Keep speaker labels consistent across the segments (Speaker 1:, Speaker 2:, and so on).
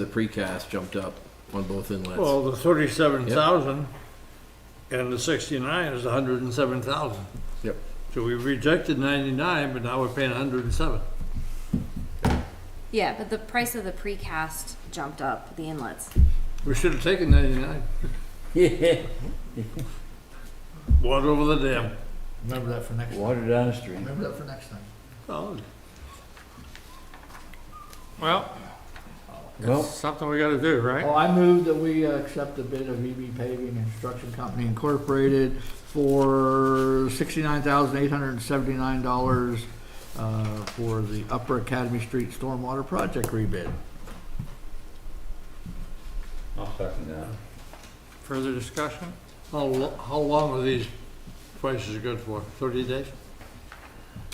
Speaker 1: the precast jumped up on both inlets.
Speaker 2: Well, the thirty-seven thousand and the sixty-nine is a hundred and seven thousand.
Speaker 1: Yep.
Speaker 2: So we rejected ninety-nine, but now we're paying hundred and seven.
Speaker 3: Yeah, but the price of the precast jumped up, the inlets.
Speaker 2: We should have taken ninety-nine.
Speaker 4: Yeah,
Speaker 2: Water over the dam.
Speaker 5: Remember that for next,
Speaker 4: water downstream.
Speaker 5: remember that for next time.
Speaker 2: Oh,
Speaker 6: Well,
Speaker 4: Well-
Speaker 6: it's something we gotta do, right?
Speaker 5: Well, I move that we uh, accept the bid of EB Paving and Construction Company Incorporated for sixty-nine thousand eight hundred and seventy-nine dollars uh, for the Upper Academy Street Stormwater Project rebid.
Speaker 4: I'll second that.
Speaker 6: Further discussion?
Speaker 2: How, lo- how long are these prices good for? Thirty days?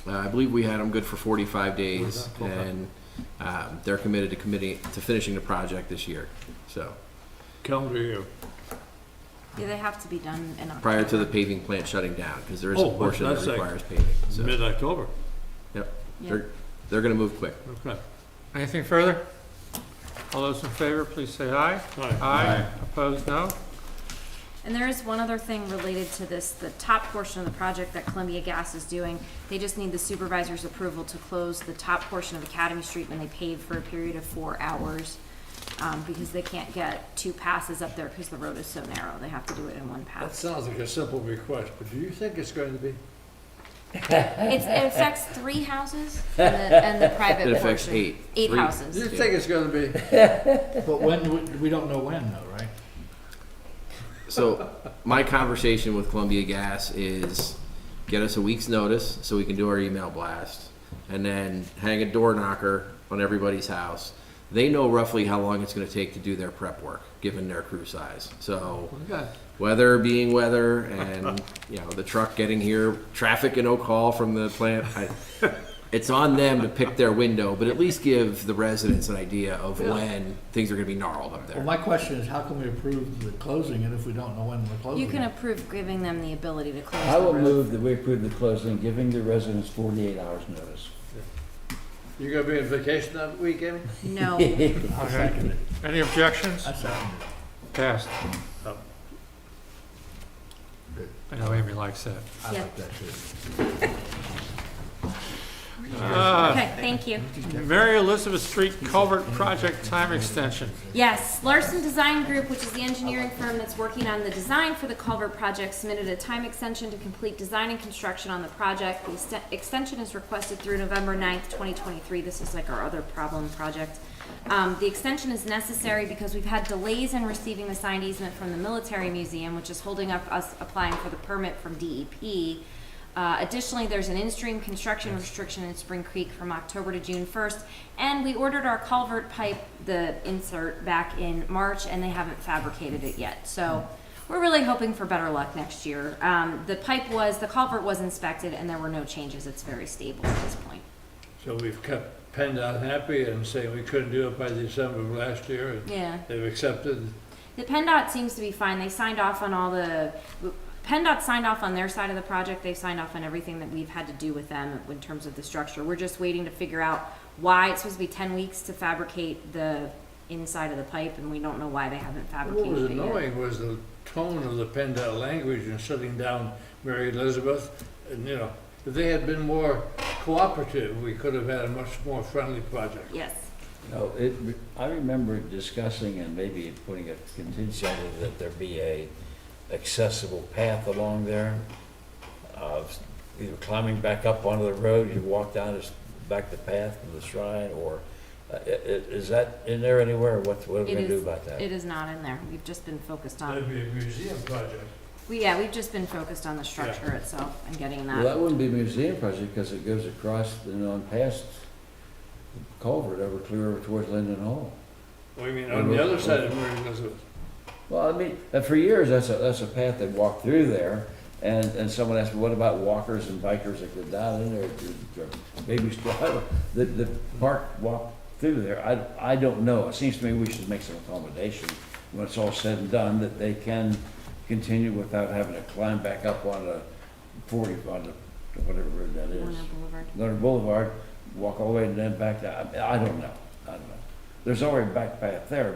Speaker 1: Uh, I believe we had them good for forty-five days,
Speaker 2: Okay.
Speaker 1: and um, they're committed to committing, to finishing the project this year. So,
Speaker 2: Calendar year.
Speaker 3: Yeah, they have to be done in October.
Speaker 1: prior to the paving plant shutting down, because there is a
Speaker 2: Oh, but
Speaker 1: portion that
Speaker 2: that's like
Speaker 1: requires paving. So,
Speaker 2: Mid-October.
Speaker 3: Yeah.
Speaker 1: they're, they're gonna move quick.
Speaker 2: Okay.
Speaker 6: Anything further? All those in favor, please say aye.
Speaker 2: All
Speaker 6: Aye. Opposed, no?
Speaker 3: And there is one other thing related to this, the top portion of the project that Columbia Gas is doing. They just need the supervisor's approval to close the top portion of Academy Street when they pave for a period of four hours. Um, because they can't get two passes up there because the road is so narrow. They have to do it in one
Speaker 2: That
Speaker 3: pass.
Speaker 2: sounds like a simple request, but do you think it's going to be?
Speaker 3: It's, it affects three houses and the, and the private
Speaker 1: It
Speaker 3: portion.
Speaker 1: affects eight. Three.
Speaker 3: Eight
Speaker 2: Do you
Speaker 3: houses.
Speaker 2: think it's gonna be?
Speaker 5: But when, do we- we don't know when though, right?
Speaker 1: So, my conversation with Columbia Gas is get us a week's notice so we can do our email blast, and then hang a door knocker on everybody's house. They know roughly how long it's gonna take to do their prep work, given their crew size. So,
Speaker 2: Okay.
Speaker 1: weather being weather, and you know the truck getting here, traffic in Oak Hall from the plant. I, it's on them to pick their window, but at least give the residents an idea of when things are gonna be gnarled up there.
Speaker 5: Well, my question is, how can we approve the closing it if we don't know when the closing
Speaker 3: You
Speaker 5: is?
Speaker 3: can approve giving them the ability to close
Speaker 4: I
Speaker 3: the
Speaker 4: will
Speaker 3: road.
Speaker 4: move that we approve the closing, giving the residents 48 hours notice.
Speaker 2: You gonna be on vacation that week, Amy?
Speaker 3: No.
Speaker 5: I second it.
Speaker 6: Any objections?
Speaker 5: I second it.
Speaker 6: Passed.
Speaker 2: Oh.
Speaker 6: I know Amy likes that.
Speaker 5: I
Speaker 3: Yeah.
Speaker 5: like that too.
Speaker 6: Uh,
Speaker 3: Okay, thank you.
Speaker 6: Mary Elizabeth Street Culvert Project Time Extension.
Speaker 3: Yes, Larson Design Group, which is the engineering firm that's working on the design for the culvert project, submitted a time extension to complete design and construction on the project. The ext- extension is requested through November 9th, twenty twenty-three. This is like our other problem project. Um, the extension is necessary because we've had delays in receiving the signed easement from the military museum, which is holding up us applying for the permit from E DEP. Uh, additionally, there's an in-stream construction restriction in Spring Creek from October to June first, and we ordered our culvert pipe, the insert, back in March, and they haven't fabricated it yet, so we're really hoping for better luck next year. Um, the pipe was, the culvert was inspected, and there were no changes, it's very stable at this point.
Speaker 2: So we've kept PennDOT happy and saying we couldn't do it by December of last year, and
Speaker 3: Yeah.
Speaker 2: they've accepted.
Speaker 3: The PennDOT seems to be fine. They signed off on all the, PennDOT signed off on their side of the project. They've signed off on everything that we've had to do with them in terms of the structure. We're just waiting to figure out why it's supposed to be ten weeks to fabricate the inside of the pipe, and we don't know why they haven't
Speaker 2: What was
Speaker 3: fabricated it yet.
Speaker 2: annoying was the tone of the PennDOT language in shutting down Mary Elizabeth, and, you know, if they had been more cooperative, we could have had a much more friendly project.
Speaker 3: Yes.
Speaker 4: No, it, I remember discussing and maybe putting a contingency on it that there be a accessible path along there. Of either climbing back up onto the road, you walk down this, back the path to the shrine, or, uh, i- i- is that in there anywhere? What, what are we
Speaker 3: It
Speaker 4: gonna do
Speaker 3: is,
Speaker 4: about that?
Speaker 3: it is not in there. We've just been focused
Speaker 2: That'd
Speaker 3: on,
Speaker 2: be a museum project.
Speaker 3: we, yeah, we've just been focused on the structure itself and getting
Speaker 4: Well,
Speaker 3: that.
Speaker 4: that wouldn't be a museum project, because it goes across and on past the culvert over clear over towards Linden Hall.
Speaker 2: Well, you mean, on the other side of Mary Elizabeth.
Speaker 4: Well, I mean, uh, for years, that's a, that's a path they walked through there, and, and someone asked me, what about walkers and bikers that go down in there, to- to- maybe, still have a- the, the park walk through there, I, I don't know, it seems to me we should make some accommodation, when it's all said and done, that they can continue without having to climb back up on a forty, on a, whatever road that is.
Speaker 3: Warner Boulevard.
Speaker 4: Leonard Boulevard, walk all the way and then back down, I I don't know, I don't know. there's already a back path there,